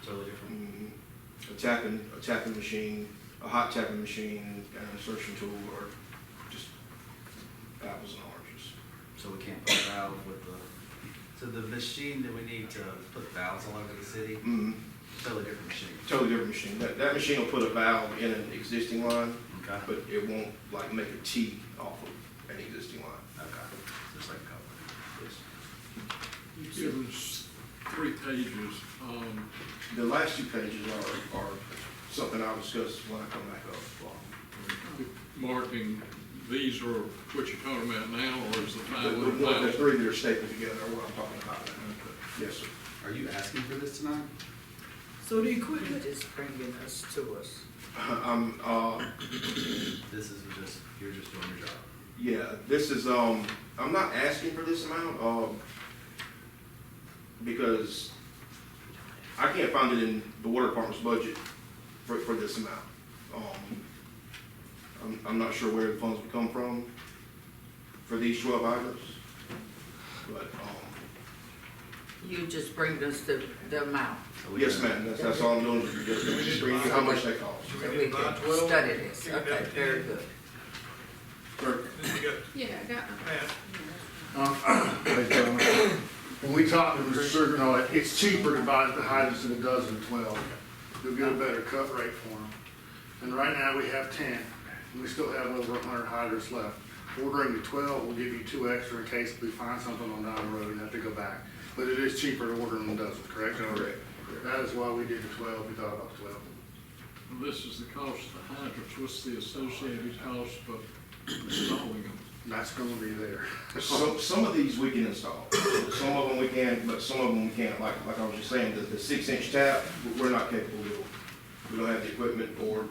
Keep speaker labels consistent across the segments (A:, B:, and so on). A: Mm-hmm. a tapping, a tapping machine, a hot tapping machine, an insertion tool, or just apples and oranges.
B: So we can't put valve with the, so the machine that we need to put valves all over the city,
A: Mm,
B: totally different machine.
A: totally different machine. That, that machine will put a valve in an existing line,
B: Okay.
A: but it won't like make a T off of an existing line.
B: Okay, just like a couple.
C: It was three pages, um,
A: The last two pages are, are something I'll discuss when I come back up.
C: marking, these are what you're talking about now, or is the
A: The,
C: five
A: the
C: hundred
A: one, the
C: thousand?
A: three that are stapled together are what I'm talking about. Yes, sir.
B: Are you asking for this tonight?
D: So the equipment is bringing us to us.
A: I'm, uh,
B: This is just, you're just doing your job.
A: Yeah, this is, um, I'm not asking for this amount, um, because I can't find it in the water department's budget for, for this amount. Um, I'm, I'm not sure where the funds would come from for these twelve items, but, um,
D: You just bring us the, the amount
B: So we
A: yes,
B: can-
A: ma'am, that's, that's all I'm doing, is just bringing you how much that costs.
D: so we can study this. Okay, very good.
A: For-
E: Yeah, I got
F: Hey, gentlemen, um, When we talked to Mr. Sugarnoy, it's cheaper to buy the hydrants than it does in twelve. You'll get a better cut rate for them. And right now, we have ten, and we still have over hundred hydrants left. Ordering the twelve will give you two extra in case we find something on down the road and have to go back. But it is cheaper to order than a dozen, correct?
A: Correct.
F: That is why we did the twelve, we thought about twelve.
C: This is the cost of the hydrants, what's the associated cost of installing them?
F: That's gonna be there.
A: Some, some of these we can install, some of them we can, but some of them we can't, like, like I was just saying, the, the six inch tap, we're not capable of. We don't have the equipment or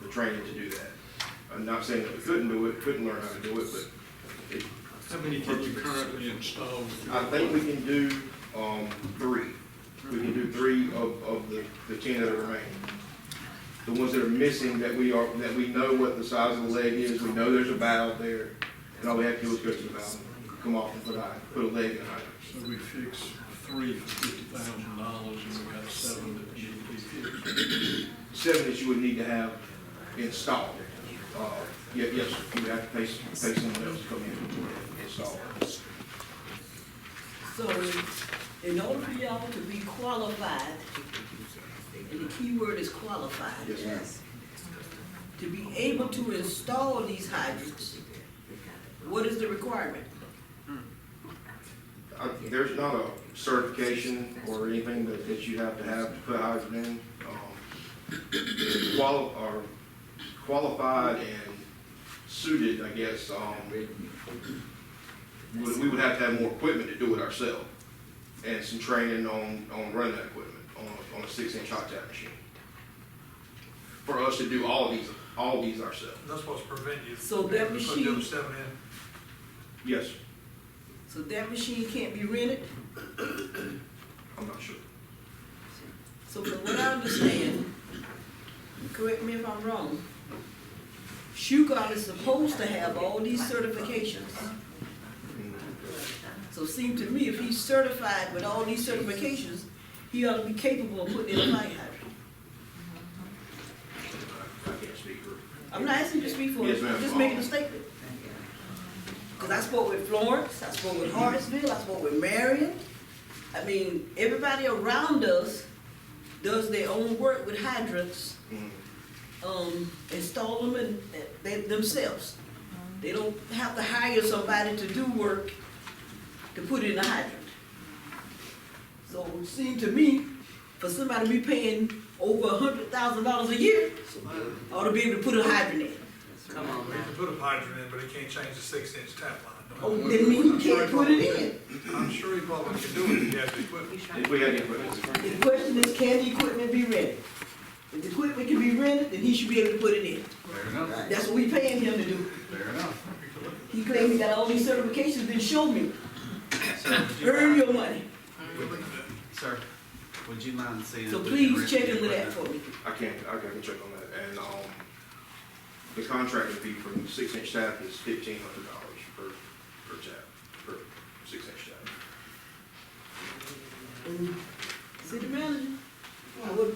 A: the training to do that. I'm not saying that we couldn't do it, couldn't learn how to do it, but it,
C: How many can you currently install?
A: I think we can do, um, three. We can do three of, of the, the ten that are remaining. The ones that are missing, that we are, that we know what the size of the leg is, we know there's a valve there, and all we have to do is go to the valve, come off and put a, put a leg in it.
C: So we fix three for fifty thousand dollars, and we got seven that need to be fixed.
A: seven that you would need to have installed. Uh, ye- Yes, sir. you would have to pay s- pay someone else to come in and install. it.
G: So in- in order for y'all to be qualified, and the key word is qualified.
A: Yes, ma'am.
G: To be able to install these hydrants, what is the requirement?
A: Uh, There's not a certification or anything that that you have to have to put hydrant in. Um, qual- or Qualified and suited, I guess, um, we we would have to have more equipment to do it ourselves and some training on, on running that equipment on, on a six-inch hot tap machine. For us to do all these, all these ourselves.
H: That's what's preventing you.
G: So that
H: You couldn't do
G: machine-
H: seven in.
A: Yes,
G: So that machine can't be rented?
A: I'm not sure.
G: So from what I understand, correct me if I'm wrong, Shugart is supposed to have all these certifications. So it seemed to me, if he's certified with all these certifications, he ought to be capable of putting in a light hydrant.
A: I I can't speak for.
G: I'm not asking you to speak for
A: Yes,
G: it,
A: ma'am.
G: I'm just making a statement. Because I spoke with Florence, I spoke with Hartsville, I spoke with Marion. I mean, everybody around us does their own work with hydrants,
A: Mm,
G: um, install them and they, themselves. They don't have to hire somebody to do work to put in a hydrant. So it seemed to me, for somebody to be paying over a hundred thousand dollars a year, ought to be able to put a hydrant in.
D: Come on
H: You can put a hydrant in, but it can't change the six inch tap line.
G: Oh, then we can't put it in.
H: I'm sure you probably can do it if you have the equipment.
A: If we had the equipment.
G: The question is, can the equipment be rented? If the equipment can be rented, then he should be able to put it in.
B: Fair enough,
G: That's what we paying him to do.
B: fair enough.
G: He claims he got all these certifications, then show me,
B: So would you
G: earn
B: mind-
G: your money.
B: Sir, would you mind seeing?
G: So
B: if we can
G: please
B: rent
G: check
B: the
G: into that
B: equipment?
G: for me.
A: I can't, I can check on that, and, um, the contractor fee for six inch tap is fifteen hundred dollars per, per tap, per six inch tap.
G: And City manager,